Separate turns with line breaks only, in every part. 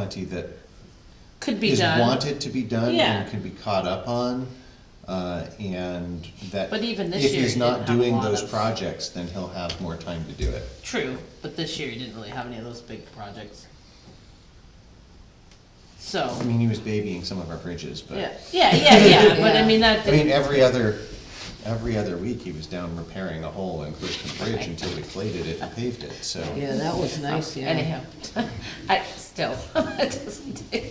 plenty that
could be
is
done.
wanted to be done
Yeah.
and can be caught up on, uh, and that.
But even this
if
year
he's
he
not
didn't have a
doing
lot
those
of-
projects, then he'll have more time to do it.
True, but this year you didn't really have any of those big projects. So,
I mean, he was babying some of our bridges, but.
yeah, yeah, yeah, yeah, but I
Yeah.
mean, that,
I mean, every other, every other week, he was down repairing a hole in Clifton Bridge until we plated it and paved it, so.
Yeah, that was nice, yeah.
anyhow, I, still, it doesn't do.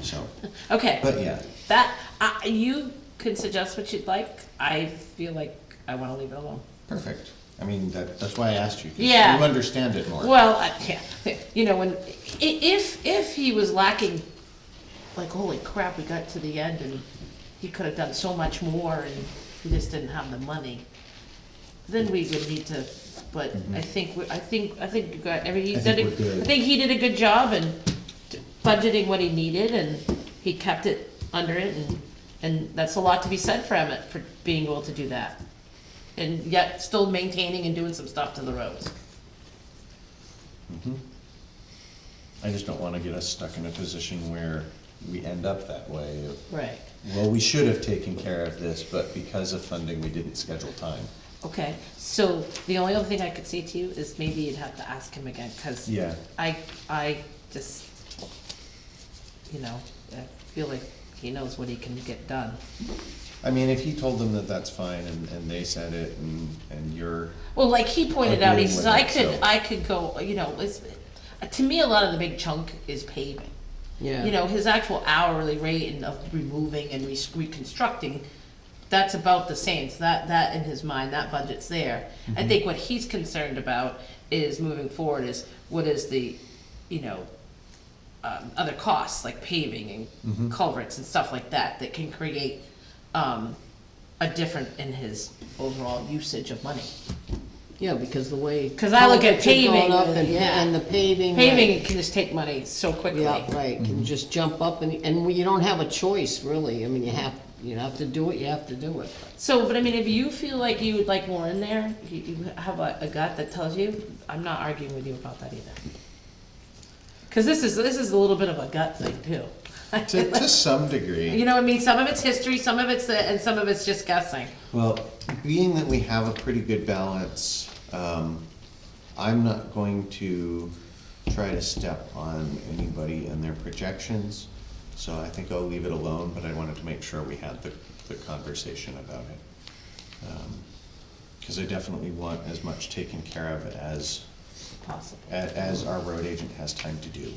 So,
Okay,
but yeah,
that, I, you can suggest what you'd like, I feel like I wanna leave it alone.
perfect. I mean, that, that's why I asked you, 'cause
Yeah.
you understand it more.
Well, I- yeah, you know, when, i- if, if he was lacking, like, holy crap, we got to the end and he could have done so much more and he just didn't have the money, then we would need to, but I think, we- I think, I think you got, every, he
Mm-hmm. I
did,
think we're
a- I
good.
think he did a good job in budgeting what he needed and he kept it under it and, and that's a lot to be said for Emmett, for being able to do that. And yet still maintaining and doing some stuff to the roads.
I just don't wanna get us stuck in a position where we end up that way of
Right.
Well, we should have taken care of this, but because of funding, we didn't schedule time.
Okay, so the only other thing I could say to you is maybe you'd have to ask him again, cause
Yeah.
I, I just, you know, I feel like he knows what he can get done.
I mean, if he told them that that's fine and, and they said it and, and you're,
Well, like he pointed out, he
Agreeing with
says, I
it,
could,
so-
I could go, you know, it's, to me, a lot of the big chunk is paving.
Yeah.
You know, his actual hourly rate and of removing and re- reconstructing, that's about the same, so that, that in his mind, that budget's there. I think what he's concerned about is moving forward is what is the, you know, um, other costs like paving and culverts and stuff like that, that can create, um, a different in his overall usage of money.
Yeah, because the way.
'Cause I look at
culverts are going
paving,
up and-
yeah.
And the paving.
Paving can just take money so
right.
quickly.
Yeah, right,
Mm-hmm.
can just jump up and, and we- you don't have a choice, really, I mean, you have, you have to do it, you have to do it.
So, but I mean, if you feel like you would like more in there, you, you have a, a gut that tells you, I'm not arguing with you about that either. Cause this is, this is a little bit of a gut thing too.
to, to some
You
degree.
know what I mean? Some of it's history, some of it's, the- and some of it's just guessing.
Well, being that we have a pretty good balance, um, I'm not going to try to step on anybody and their projections. So I think I'll leave it alone, but I wanted to make sure we had the, the conversation about it. Um, Cause I definitely want as much taken care of as
Possible.
a- as our road agent has time to do,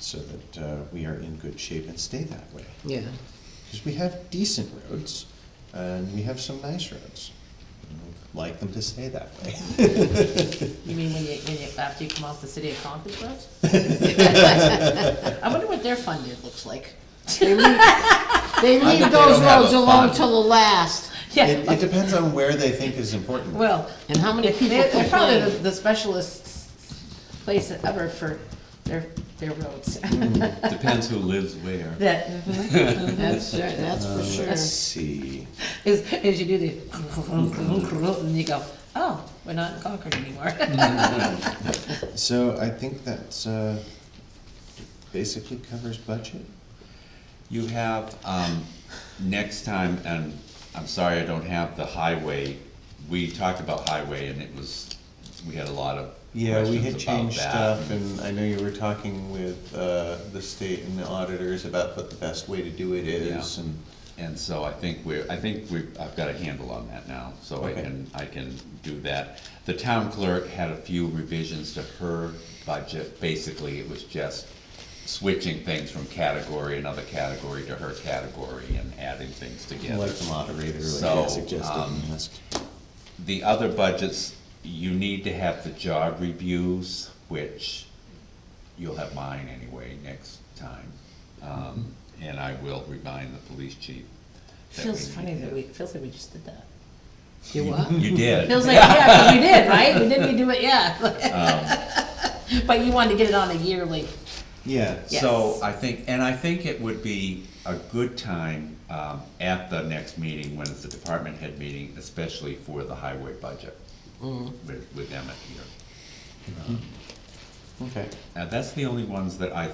so that uh, we are in good shape and stay that way.
Yeah,
Because we have decent roads, and we have some nice roads. And we'd Like them to stay that way.
You mean when you, when you, after you come off the city of Concord Road? I wonder what their funding looks like.
they
I
leave
bet they
those
don't have
roads
a
alone
fund.
till the
It,
last,
Yeah,
it depends on where they think is important.
well,
and how many people
They're, they're probably the,
complain?
the specialist place ever for their, their roads.
Mm-hmm. Depends who lives where.
That, mm-hmm.
That's, right, that's for
Let's
sure.
see,
is, is you do the, and you go, oh, we're not in Concord anymore.
Mm-hmm.
so I think that's, uh, basically covers budget.
You have, um, next time, and I'm sorry I don't have the highway, we talked about highway and it was, we had a lot of
Yeah, we had
questions about
changed
that.
stuff, and I know you were talking with, uh, the state and the auditors about what the best way to do it is,
Yeah.
and
And so I think we're, I think we, I've got a handle on that now, so I
Okay.
can, I can do that. The town clerk had a few revisions to her budget, basically it was just switching things from category, another category to her category and adding things together.
like the moderator, like
So,
I suggested
um,
and asked.
The other budgets, you need to have the job reviews, which you'll have mine anyway next time. Um, and I will remind the police chief. that we
Feels
need
funny that
to-
we, feels like we just did that.
You what?
You did.
Feels like, yeah, 'cause we did, right? We did, we do it, yeah.
Um,
But you wanted to get it on a yearly,
Yeah,
Yes.
So I think, and I think it would be a good time, um, at the next meeting, when it's the department head meeting, especially
Mm-hmm.
for the highway budget. With, with Emmett here. Um,
Okay.
Now, that's the only ones that I